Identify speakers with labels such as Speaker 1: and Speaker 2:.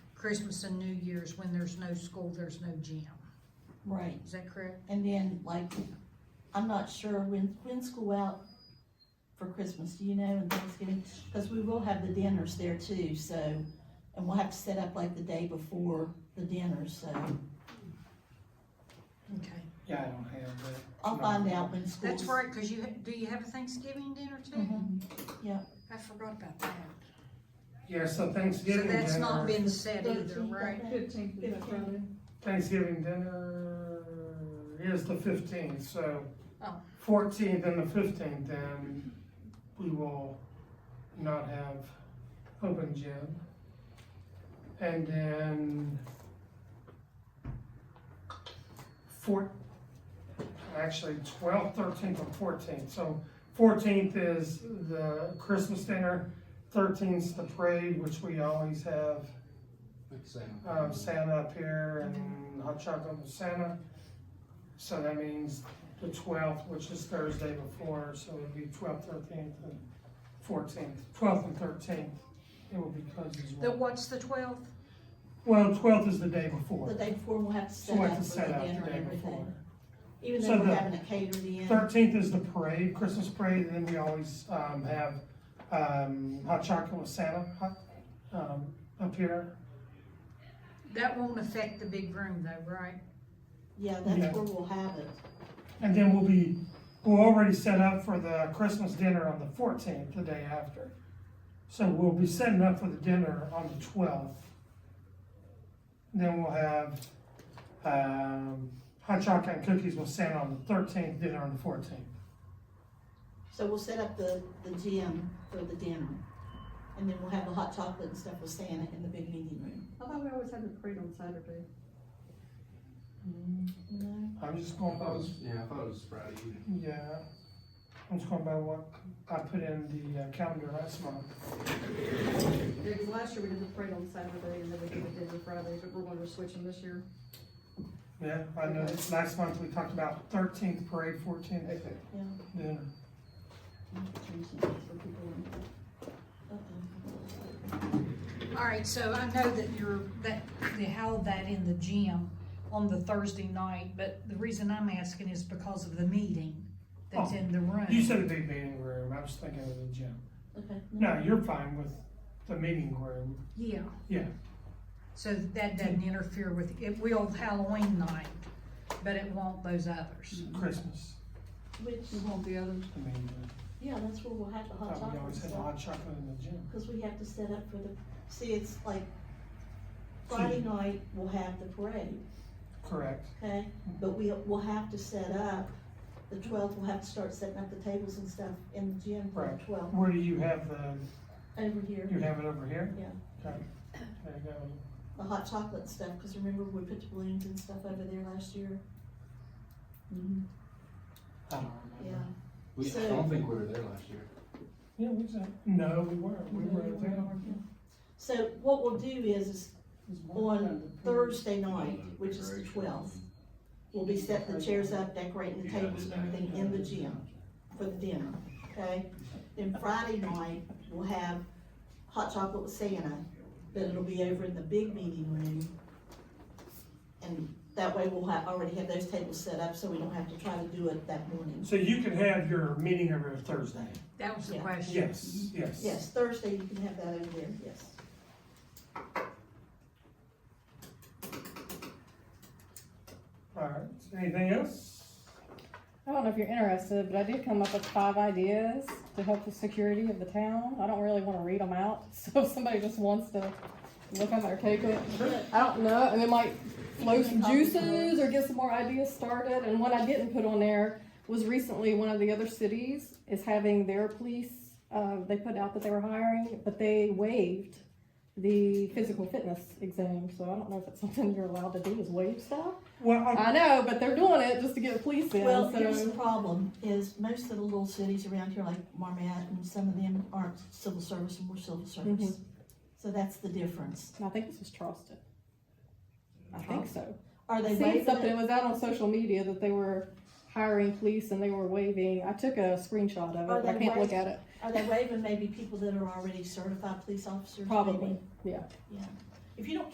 Speaker 1: Christmas and New Year's, when there's no school, there's no gym.
Speaker 2: Right,
Speaker 1: Is that correct?
Speaker 2: and then like, I'm not sure when, when school out for Christmas, do you know, and Thanksgiving? Cause we will have the dinners there too, so, and we'll have to set up like the day before the dinner, so.
Speaker 1: Okay.
Speaker 3: Yeah, I don't have that.
Speaker 2: I'll find out when school.
Speaker 1: That's right, cause you, ha- do you have a Thanksgiving dinner too?
Speaker 2: Mhm.
Speaker 1: I forgot about that.
Speaker 3: Yeah, so
Speaker 1: So
Speaker 3: Thanksgiving
Speaker 1: that's not
Speaker 3: dinner,
Speaker 1: been set either,
Speaker 2: Thirteenth, I
Speaker 1: right?
Speaker 2: think.
Speaker 4: Fifteenth is that
Speaker 2: Fifteenth.
Speaker 4: Friday?
Speaker 3: Thanksgiving dinner is the fifteenth, so
Speaker 1: Oh.
Speaker 3: fourteenth and the fifteenth, then we will not have open gym. And then four, actually twelfth, thirteenth, and fourteenth, so fourteenth is the Christmas dinner, thirteenth's the parade, which we always have
Speaker 5: Like Sam.
Speaker 3: um, Santa up here and hot chocolate with Santa. So that means the twelfth, which is Thursday before, so it'd be twelfth, thirteenth, and fourteenth, twelfth and thirteenth. It will be closed as
Speaker 1: The,
Speaker 3: well.
Speaker 1: what's the twelfth?
Speaker 3: Well, twelfth is the day
Speaker 2: The
Speaker 3: before,
Speaker 2: day before, we'll have to
Speaker 3: so
Speaker 2: set
Speaker 3: we
Speaker 2: up
Speaker 3: have to
Speaker 2: with the
Speaker 3: set out
Speaker 2: dinner
Speaker 3: the
Speaker 2: and
Speaker 3: day before.
Speaker 2: everything. Even
Speaker 3: So
Speaker 2: though
Speaker 3: the
Speaker 2: we're having it catered in,
Speaker 3: Thirteenth is the parade, Christmas parade, and then we always, um, have, um, hot chocolate with Santa, hot, um, up here.
Speaker 1: That won't affect the big room though, right?
Speaker 2: yeah,
Speaker 3: Yeah.
Speaker 2: that's where we'll have it.
Speaker 3: And then we'll be, we're already set up for the Christmas dinner on the fourteenth, the day after. So we'll be setting up for the dinner on the twelfth. Then we'll have, um, hot chocolate and cookies with Santa on the thirteenth, dinner on the fourteenth.
Speaker 2: So we'll set up the, the gym for the dinner. And then we'll have the hot chocolate and stuff with Santa in the big meeting room.
Speaker 4: I thought we always had the parade on Saturday.
Speaker 2: No,
Speaker 3: I'm just going by,
Speaker 5: Yeah, Oh, I thought it was Friday evening.
Speaker 3: yeah, I'm just going by what I put in the uh, calendar last month.
Speaker 4: Yeah, 'cause last year we did the parade on Saturday and then we did the dinner Friday, but we're gonna switch them this year.
Speaker 3: Yeah, I know, last month we talked about thirteenth parade, fourteenth
Speaker 2: yeah.
Speaker 3: dinner.
Speaker 4: Change it so people don't-
Speaker 2: uh-uh.
Speaker 1: All right, so I know that you're, that they held that in the gym on the Thursday night, but the reason I'm asking is because of the meeting that's
Speaker 3: Oh,
Speaker 1: in the room.
Speaker 3: You said a big meeting room, I was thinking of the gym.
Speaker 2: Okay.
Speaker 3: No, you're fine with the meeting room.
Speaker 1: Yeah.
Speaker 3: Yeah.
Speaker 1: So that doesn't interfere with, it will Halloween night, but it won't those others.
Speaker 3: Christmas.
Speaker 2: Which,
Speaker 4: You want the others?
Speaker 3: I mean, uh,
Speaker 2: yeah, that's where we'll have the hot
Speaker 3: thought
Speaker 2: chocolate
Speaker 3: we
Speaker 2: and
Speaker 3: always had
Speaker 2: stuff.
Speaker 3: hot chocolate in the gym.
Speaker 2: Cause we have to set up for the, see, it's like Friday night, we'll have the parade,
Speaker 3: Correct.
Speaker 2: okay?
Speaker 3: Mm-hmm.
Speaker 2: But we, we'll have to set up, the twelfth, we'll have to start setting up the tables and stuff in the gym for the
Speaker 3: Right.
Speaker 2: twelfth,
Speaker 3: Where do you have the,
Speaker 2: over here.
Speaker 3: you have it over here?
Speaker 2: Yeah.
Speaker 3: Okay. There you go.
Speaker 2: The hot chocolate stuff, cause remember we put the balloons and stuff over there last year?
Speaker 4: Mm-hmm.
Speaker 3: I don't
Speaker 2: Yeah,
Speaker 3: remember.
Speaker 5: We, I don't think we were there last year.
Speaker 3: Yeah, we said, no, we weren't. We were at the.
Speaker 2: so what we'll do is, is on Thursday night,
Speaker 5: Yeah,
Speaker 2: which is the
Speaker 5: decoration.
Speaker 2: twelfth, we'll be setting the chairs up, decorating the
Speaker 5: Yeah,
Speaker 2: tables and
Speaker 5: did
Speaker 2: everything
Speaker 5: that.
Speaker 2: in the gym for the dinner, okay? Then Friday night, we'll have hot chocolate with Santa, but it'll be over in the big meeting room. And that way we'll have, already have those tables set up, so we don't have to try to do it that morning.
Speaker 3: So you can have your meeting over Thursday?
Speaker 1: That was the
Speaker 2: Yeah.
Speaker 1: question.
Speaker 3: Yes, yes.
Speaker 2: Yes, Thursday, you can have that over there, yes.
Speaker 3: All right. Anything else?
Speaker 6: I don't know if you're interested, but I did come up with five ideas to help the security of the town. I don't really want to read them out, so if somebody just wants to look them or take it, I don't know. And then like flow some juices or get some more ideas started. And what I didn't put on there was recently one of the other cities is having their police. Uh, they put out that they were hiring, but they waived the physical fitness exam. So I don't know if it's something you're allowed to do is waive stuff.
Speaker 3: Well, I-
Speaker 6: I know, but they're doing it just to get police in.
Speaker 2: Well,
Speaker 6: so.
Speaker 2: here's the problem, is most of the little cities around here, like Marmad, and some of them aren't civil service and we're civil service.
Speaker 6: Mhm.
Speaker 2: So that's the difference.
Speaker 6: I think this was Charleston. I think so.
Speaker 2: Are
Speaker 6: I
Speaker 2: they
Speaker 6: seen
Speaker 2: waiving
Speaker 6: something, it
Speaker 2: it?
Speaker 6: was out on social media that they were hiring police and they were waving. I took a screenshot of
Speaker 2: Are
Speaker 6: it, but I
Speaker 2: they
Speaker 6: can't look
Speaker 2: waving?
Speaker 6: at it.
Speaker 2: Are they waiving maybe people that are already certified police officers? maybe?
Speaker 6: Probably, yeah.
Speaker 2: If you don't